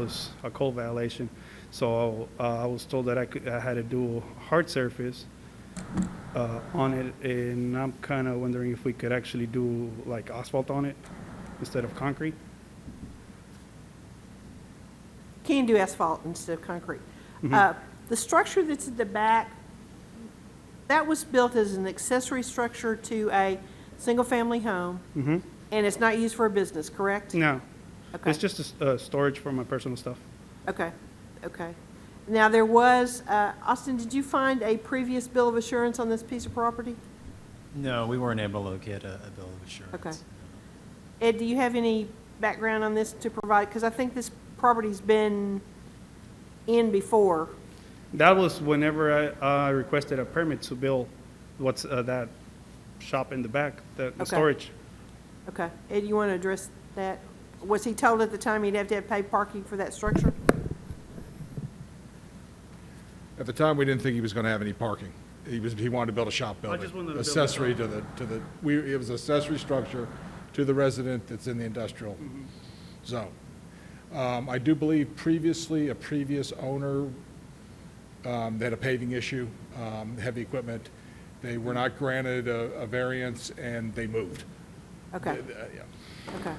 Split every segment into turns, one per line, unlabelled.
was a code violation. So uh, I was told that I could, I had to do a hard surface uh, on it, and I'm kind of wondering if we could actually do like asphalt on it instead of concrete?
can do asphalt instead of concrete.
Mm-hmm.
Uh, The structure that's at the back, that was built as an accessory structure to a single-family home,
Mm-hmm.
and it's not used for a business, correct?
No,
Okay.
it's just a s- uh, storage for my personal stuff.
Okay, okay. Now, there was, uh, Austin, did you find a previous bill of assurance on this piece of property?
No, we weren't able to locate a, a bill of assurance.
Okay. Ed, do you have any background on this to provide? Because I think this property's been in before.
That was whenever I uh, requested a permit to build what's uh, that shop in the back, the the
Okay.
storage.
Okay, Ed, you want to address that? Was he told at the time he'd have to have paid parking for that structure?
At the time, we didn't think he was going to have any parking. He was, he wanted to build a shop building.
just wanted to build a shop.
Accessory to the, to the, we, it was accessory structure to the resident that's in the industrial
Mm-hmm.
zone. Um, I do believe previously, a previous owner, um, they had a paving issue, um, heavy equipment. They were not granted a, a variance and they moved.
Okay,
Uh, yeah.
okay.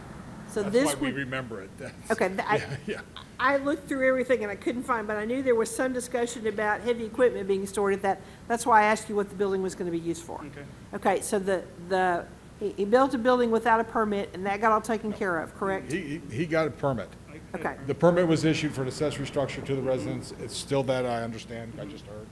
So
That's
this
why we
would,
remember it. That's-
okay, th- I,
Yeah.
I looked through everything and I couldn't find, but I knew there was some discussion about heavy equipment being stored at that. That's why I asked you what the building was going to be used for.
Okay.
Okay, so the, the, he, he built a building without a permit and that got all taken care of, correct?
He, he- he got a permit.
Okay,
The permit was issued for an accessory structure to the residence. It's still that, I understand, I just heard.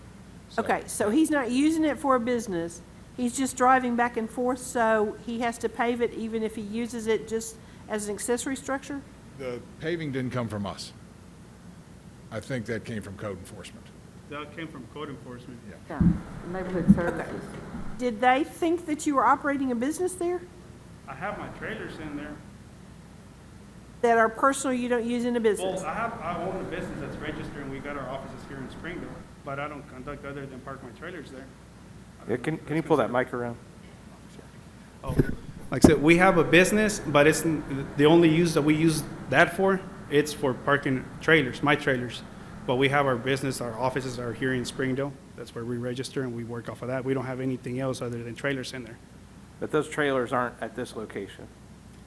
So-
okay, so he's not using it for a business. He's just driving back and forth, so he has to pave it even if he uses it just as an accessory structure?
The paving didn't come from us. I think that came from code enforcement.
That came from code enforcement.
Yeah.
Yeah, neighborhood services.
Did they think that you were operating a business there?
I have my trailers in there.
That are personal, you don't use in a business?
Well, I have, I own a business that's registered, and we got our offices here in Springville, but I don't conduct other than park my trailers there.
Yeah, can, can you pull that mic around?
Oh, Like I said, we have a business, but it's, n- the only use that we use that for, it's for parking trailers, my trailers. But we have our business, our offices are here in Springdale, that's where we register, and we work off of that. We don't have anything else other than trailers in there.
But those trailers aren't at this location,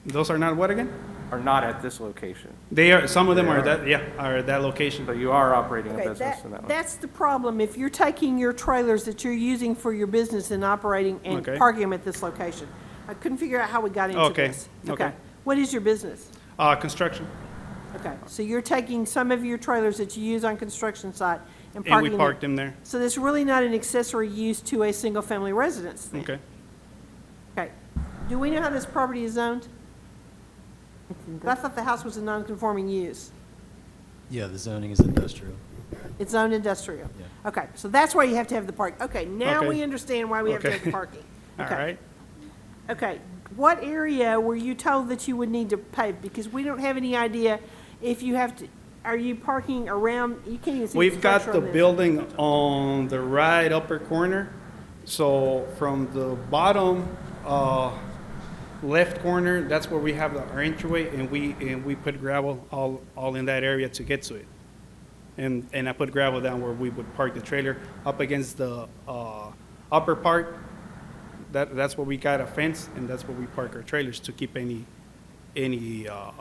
Those are not what again?
are not at this location.
They are, some of them are that, yeah, are at that location.
So you are operating a
Okay,
business in that
that,
one.
that's the problem. If you're taking your trailers that you're using for your business and operating and
Okay.
parking them at this location. I couldn't figure out how we got into
Okay,
this.
okay.
What is your business?
Uh, construction,
Okay, so you're taking some of your trailers that you use on construction site and
and
parking
we
them?
parked them there,
So that's really not an accessory use to a single-family residence then?
okay?
Okay. Do we know how this property is zoned? I thought the house was a non-conforming use.
Yeah, the zoning is industrial.
It's zoned industrial.
Yeah.
Okay, so that's why you have to have the park. Okay, now
Okay.
we understand why we have to have the
Okay.
parking.
All
Okay.
right,
Okay, what area were you told that you would need to pave? Because we don't have any idea if you have to, are you parking around, you can't even see the
We've got
structure
the
on this.
building on the right upper corner. So from the bottom, uh, left corner, that's where we have the entryway and we, and we put gravel all, all in that area to get to it. And, and I put gravel down where we would park the trailer up against the, uh, upper part. That, that's where we got a fence and that's where we park our trailers to keep any, any, uh,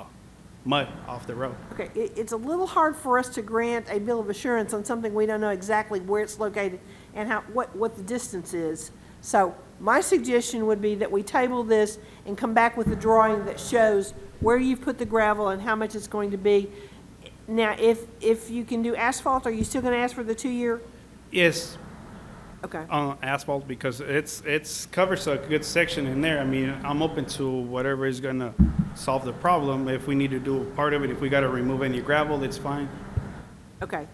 mud off the road.
Okay, it, it's a little hard for us to grant a bill of assurance on something we don't know exactly where it's located and how, what, what the distance is. So my suggestion would be that we table this and come back with a drawing that shows where you've put the gravel and how much it's going to be. Now, if, if you can do asphalt, are you still gonna ask for the two-year?
Yes,
Okay,
on asphalt because it's, it's, covers a good section in there. I mean, I'm open to whatever is gonna solve the problem. If we need to do part of it, if we gotta remove any gravel, it's fine.
okay.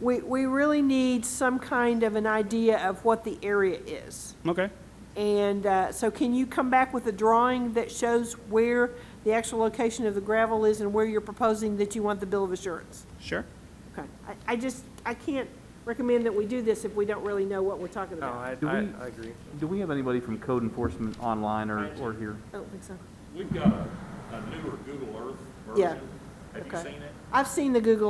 We, we really need some kind of an idea of what the area is.
Okay,
And uh, so can you come back with a drawing that shows where the actual location of the gravel is and where you're proposing that you want the bill of assurance?
sure.
Okay. I, I just, I can't recommend that we do this if we don't really know what we're talking
No,
about.
I,
Do
I,
we-
I agree.
Do we have anybody from code enforcement online or, or here?
I don't think so.
We've got a a newer Google Earth
Yeah.
version, Have you
Okay.
seen it?
I've seen the Google